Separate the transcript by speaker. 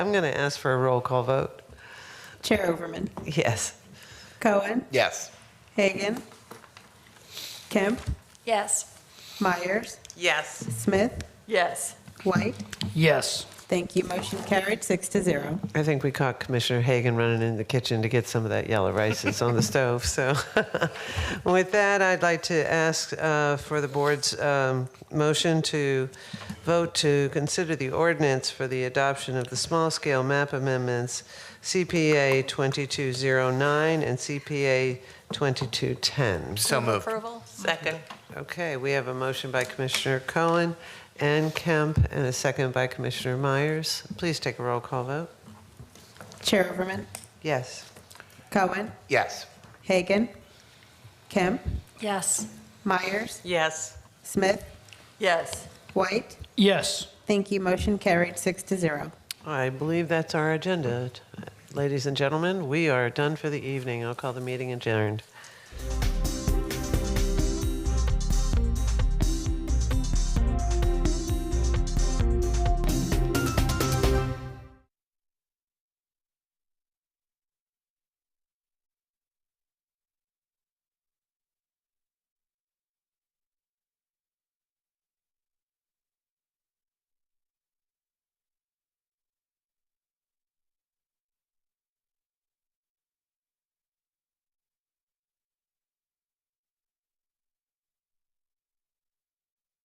Speaker 1: I'm going to ask for a roll call vote.
Speaker 2: Chair Overman.
Speaker 1: Yes.
Speaker 2: Cohen.
Speaker 3: Yes.
Speaker 2: Hagan. Kemp.
Speaker 4: Yes.
Speaker 2: Myers.
Speaker 5: Yes.
Speaker 2: Smith.
Speaker 5: Yes.
Speaker 2: White.
Speaker 6: Yes.
Speaker 2: Thank you. Motion carried, six to zero.
Speaker 1: I think we caught Commissioner Hagan running in the kitchen to get some of that yellow rice that's on the stove. So, with that, I'd like to ask uh, for the board's um, motion to vote to consider the ordinance for the adoption of the small scale map amendments CPA 2209 and CPA 2210.
Speaker 3: So moved.
Speaker 4: Approval?
Speaker 5: Second.
Speaker 1: Okay, we have a motion by Commissioner Cohen and Kemp, and a second by Commissioner Myers. Please take a roll call vote.
Speaker 2: Chair Overman.
Speaker 1: Yes.
Speaker 2: Cohen.
Speaker 3: Yes.
Speaker 2: Hagan. Kemp.
Speaker 4: Yes.
Speaker 2: Myers.
Speaker 5: Yes.
Speaker 2: Smith.
Speaker 5: Yes.
Speaker 2: White.
Speaker 6: Yes.
Speaker 2: Thank you. Motion carried, six to zero.
Speaker 1: I believe that's our agenda. Ladies and gentlemen, we are done for the evening. I'll call the meeting adjourned.